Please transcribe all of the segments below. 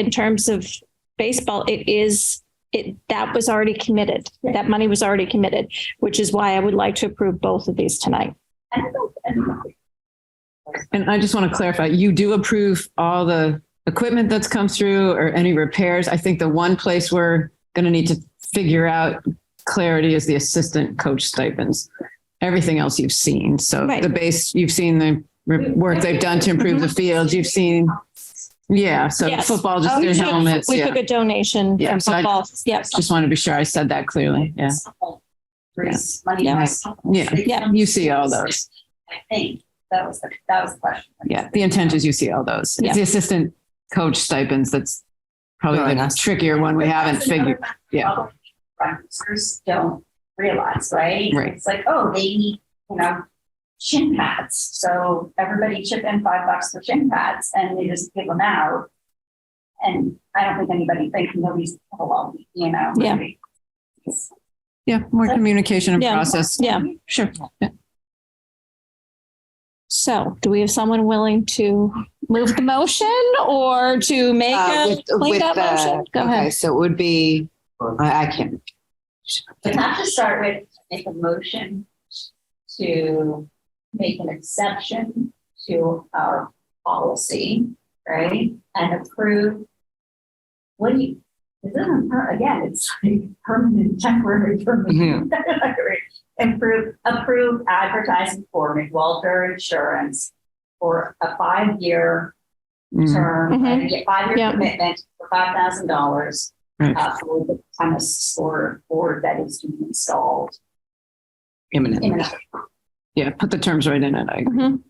in terms of baseball, it is, it, that was already committed. That money was already committed, which is why I would like to approve both of these tonight. And I just want to clarify, you do approve all the equipment that's come through or any repairs? I think the one place we're going to need to figure out clarity is the assistant coach stipends. Everything else you've seen. So Right. the base, you've seen the re- work they've done to improve the field. You've seen, yeah, so Yes. football, just Oh, their we took- helmets. We yeah. took a donation Yeah, from so I- football. Yes. Just want to be sure I said that clearly. Yeah. Raise money. Yeah. Yeah. Yeah. You see all those. I think that was, the that was the question. Yeah. The intent is you see all those. It's Yeah. the assistant coach stipends that's probably the trickier one we haven't That's another figured. yeah. problem Sponsors don't realize, right? Right. It's like, oh, they need, you know, shin pads. So everybody chip in five bucks for shin pads and they just give them out. And I don't think anybody thinks nobody's, well, you know. Yeah. It's- Yeah, more communication and Yeah. process. Yeah. Sure. So do we have someone willing to move the motion or to make Uh, a with- with cleanup the- motion? Go okay, ahead. So it would be, I, I can't, But not to start with, make a motion to make an exception to our policy, right? And approve. What do you, this isn't, per- again, it's like permanent, temporary, permanent. Improve, approve advertising for McWalter Insurance for a five-year Mm. term, Mhm. and get five-year Yeah. commitment for five thousand dollars uh, Right. for the premise or board that is to be installed imminent. in an Yeah, put the terms right in it. I agree. Mhm.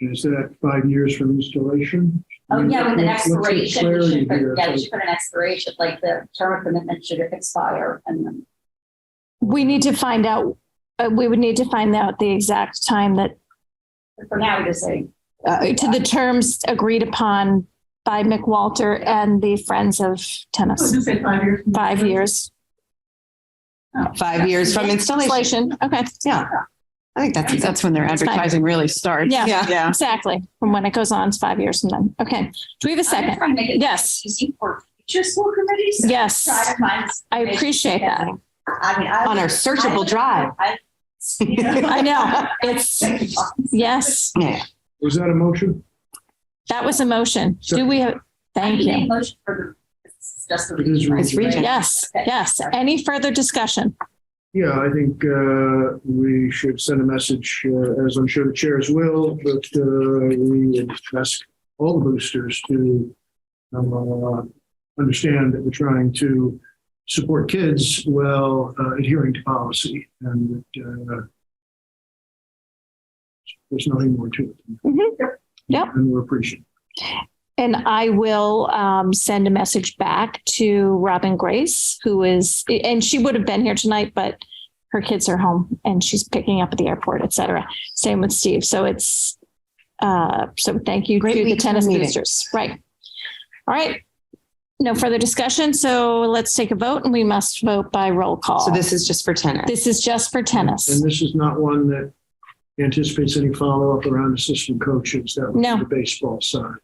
Is that five years from installation? Oh, yeah, with an Let's- let's get expiration, we should, clarity put- yeah, here. we should put an expiration, like the term of commitment should expire and then. We need to find out, uh, we would need to find out the exact time that, For now, we just say, Uh, to the terms agreed upon by McWalter and the Friends of Tennis. five years. Five years. Five years from installation. Inflation. Okay. Yeah. I think That's, that's, that's when their That's fine. advertising really starts. Yeah. yeah. Exactly. From when it goes on, it's five years from then. Okay. Do we have a I'm second? trying to make it Yes. Easy for future school committees. Yes. Try to find- I appreciate that. I mean, I. On our searchable drive. I- I know. It's, yes, Yeah. Was that a motion? that was a motion. Do we have, thank I need you. a Motion for the, it's just the It is region. It's region. Yes, yes. Any further discussion? Yeah, I think uh, we should send a message, uh, as I'm sure the chairs will, but uh, we would ask all the boosters to um, uh, understand that we're trying to support kids while uh, adhering to policy and that, uh, there's nothing more to Mhm. it. Yep. And we're appreciative. And I will um, send a message back to Robin Grace, who is, and she would have been here tonight, but her kids are home and she's picking up at the airport, et cetera. Same with Steve. So it's, uh, so thank you Great to the week for tennis meeting. boosters. Right. All right. No further discussion. So let's take a vote and we must vote by roll call. So this is just for tennis. This is just for tennis. And this is not one that anticipates any follow-up around assistant coaches. That would No. be the baseball side.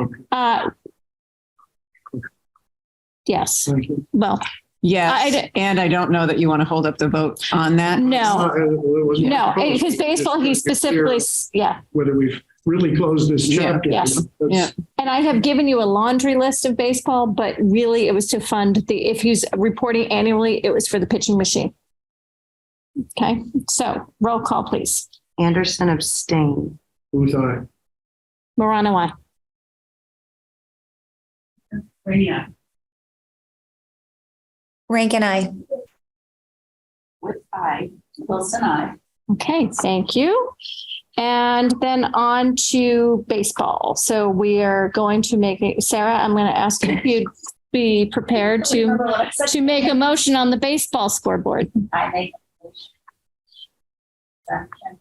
Okay, Uh, yes. thank you. Well, I Yes. d- And I don't know that you want to hold up the vote on that. no, Uh, it wasn't no, proposed. because baseball, he It's clear specifically, s- yeah. Whether we've really closed this Yeah. chapter. Yes. That's- And I have given you a laundry list of baseball, but really it was to fund the, if he's reporting annually, it was for the pitching machine. Okay, so roll call, please. Anderson abstain. Booth, aye. Morano, I. Rainier. Rank and I. With I, Wilson, I. Okay, thank you. And then on to baseball. So we are going to make, it- Sarah, I'm going to ask if you'd be prepared to, to make a motion on the baseball scoreboard. I make a motion. Exception.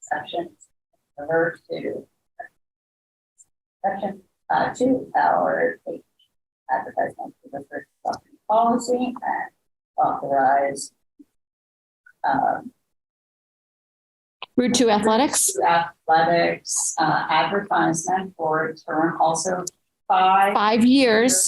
Exception. Revert to. Exception, uh, to our advertisement for the first property policy and authorize. Um, Route two athletics. athletics, uh, advertisement for term also fi- five five years